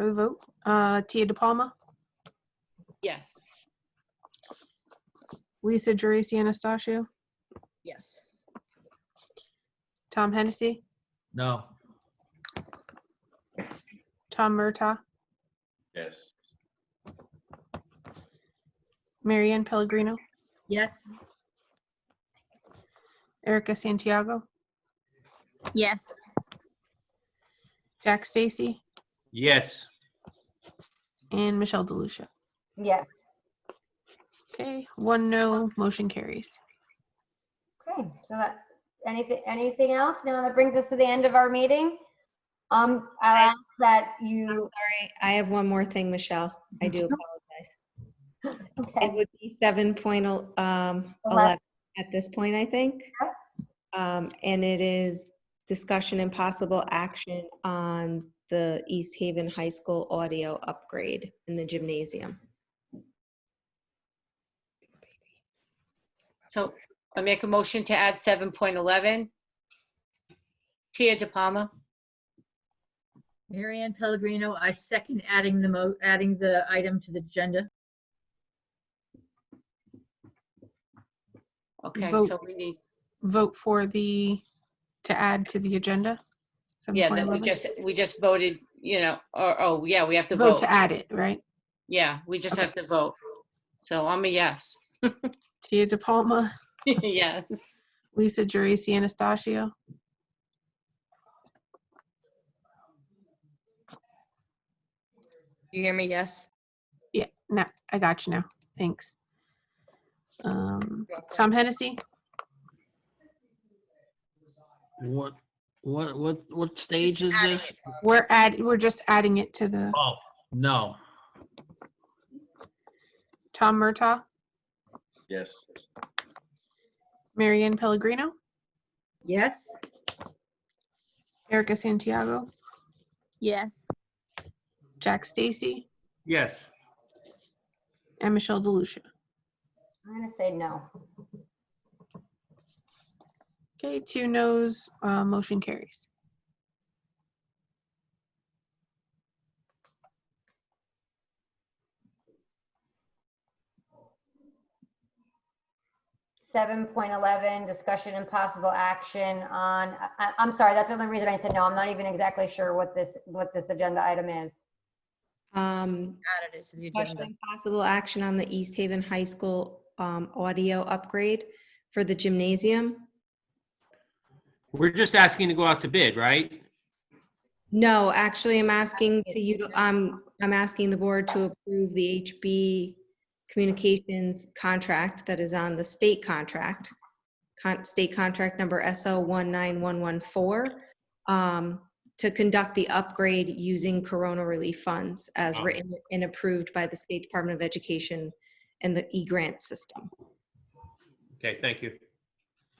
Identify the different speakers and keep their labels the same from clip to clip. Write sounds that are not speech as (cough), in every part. Speaker 1: for the vote. Uh, Tia DePalma,
Speaker 2: Yes.
Speaker 1: Lisa Jurice Anastasio,
Speaker 2: Yes.
Speaker 1: Tom Hennessy,
Speaker 3: No.
Speaker 1: Tom Murtaugh,
Speaker 4: Yes.
Speaker 1: Mary Ann Pellegrino,
Speaker 5: Yes.
Speaker 1: Erica Santiago,
Speaker 5: Yes.
Speaker 1: Jack Stacy,
Speaker 3: Yes.
Speaker 1: and Michelle DeLucia.
Speaker 6: Yes.
Speaker 1: Okay, one no, motion carries.
Speaker 6: Okay, so that, anything, anything else? Now that brings us to the end of our meeting. Um, I'll ask that you,
Speaker 7: Sorry, I have one more thing, Michelle. I do apologize. It
Speaker 6: okay,
Speaker 7: would be seven point um, eleven
Speaker 6: Eleven.
Speaker 7: at this point, I think.
Speaker 6: Sure.
Speaker 7: Um, And it is discussion and possible action on the East Haven High School audio upgrade in the gymnasium.
Speaker 2: So I make a motion to add 7.11. Tia DePalma.
Speaker 5: Mary Ann Pellegrino, I second adding the mo, adding the item to the agenda.
Speaker 2: Okay,
Speaker 1: Vote.
Speaker 2: so we need,
Speaker 1: Vote for the, to add to the agenda.
Speaker 2: yeah, that we
Speaker 1: 7.11.
Speaker 2: just, we just voted, you know, or, oh, yeah, we have to
Speaker 1: Vote
Speaker 2: vote.
Speaker 1: to add it, right?
Speaker 2: Yeah, we just
Speaker 1: Okay.
Speaker 2: have to vote. So I'm a yes. (laughs)
Speaker 1: Tia DePalma,
Speaker 2: Yes.
Speaker 1: Lisa Jurice Anastasio,
Speaker 8: You hear me? Yes.
Speaker 1: yeah, no, I got you now, thanks. Um, Tom Hennessy,
Speaker 3: What, what, what, what stage is
Speaker 8: adding
Speaker 3: this?
Speaker 8: it, Tom.
Speaker 1: we're add, we're just adding it to the,
Speaker 3: Oh, no.
Speaker 1: Tom Murtaugh,
Speaker 4: Yes.
Speaker 1: Mary Ann Pellegrino,
Speaker 5: Yes?
Speaker 1: Erica Santiago,
Speaker 5: Yes.
Speaker 1: Jack Stacy,
Speaker 3: Yes.
Speaker 1: and Michelle DeLucia.
Speaker 6: I'm gonna say no.
Speaker 1: Okay, two noes, uh, motion carries.
Speaker 6: Seven point eleven, discussion and possible action on, I, I'm sorry, that's the only reason I said no. I'm not even exactly sure what this, what this agenda item is.
Speaker 7: Um,
Speaker 8: Added it to the
Speaker 7: Discussion
Speaker 8: agenda.
Speaker 7: and possible action on the East Haven High School um, audio upgrade for the gymnasium.
Speaker 3: We're just asking to go out to bid, right?
Speaker 7: No, actually, I'm asking to you, I'm, I'm asking the board to approve the HB Communications contract that is on the state contract, con- state contract number SO 19114, um, to conduct the upgrade using Corona relief funds as
Speaker 3: Wow.
Speaker 7: written and approved by the State Department of Education and the e-grant system.
Speaker 3: Okay, thank you.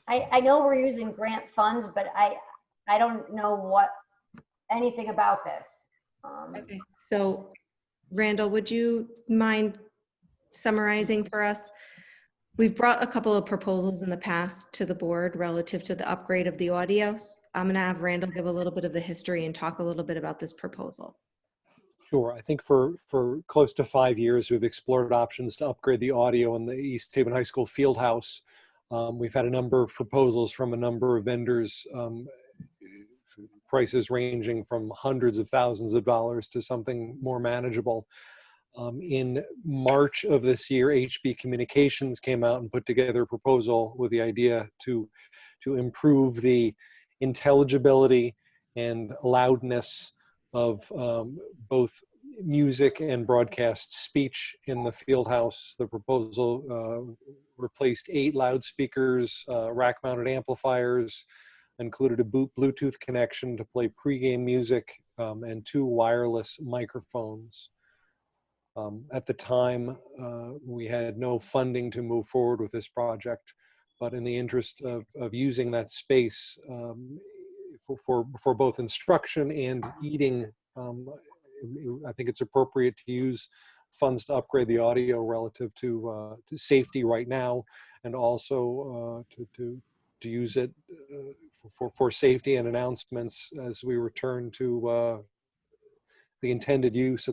Speaker 6: I, I know we're using grant funds, but I, I don't know what, anything about this. Um,
Speaker 7: Okay, so Randall, would you mind summarizing for us? We've brought a couple of proposals in the past to the board relative to the upgrade of the audio. S- I'm going to have Randall give a little bit of the history and talk a little bit about this proposal.
Speaker 9: Sure. I think for, for close to five years, we've explored options to upgrade the audio in the East Haven High School field house. Um, we've had a number of proposals from a number of vendors, um, prices ranging from hundreds of thousands of dollars to something more manageable. Um, in March of this year, HB Communications came out and put together a proposal with the idea to to improve the intelligibility and loudness of um, both music and broadcast speech in the field house. The proposal uh, replaced eight loudspeakers, uh, rack mounted amplifiers, included a boot Bluetooth connection to play pregame music, um, and two wireless microphones. Um, at the time, uh, we had no funding to move forward with this project, but in the interest of, of using that space um, for, for, for both instruction and eating, um, I think it's appropriate to use funds to upgrade the audio relative to, uh, to safety right now and also uh, to, to, to use it uh, for, for safety and announcements as we return to uh, the intended use,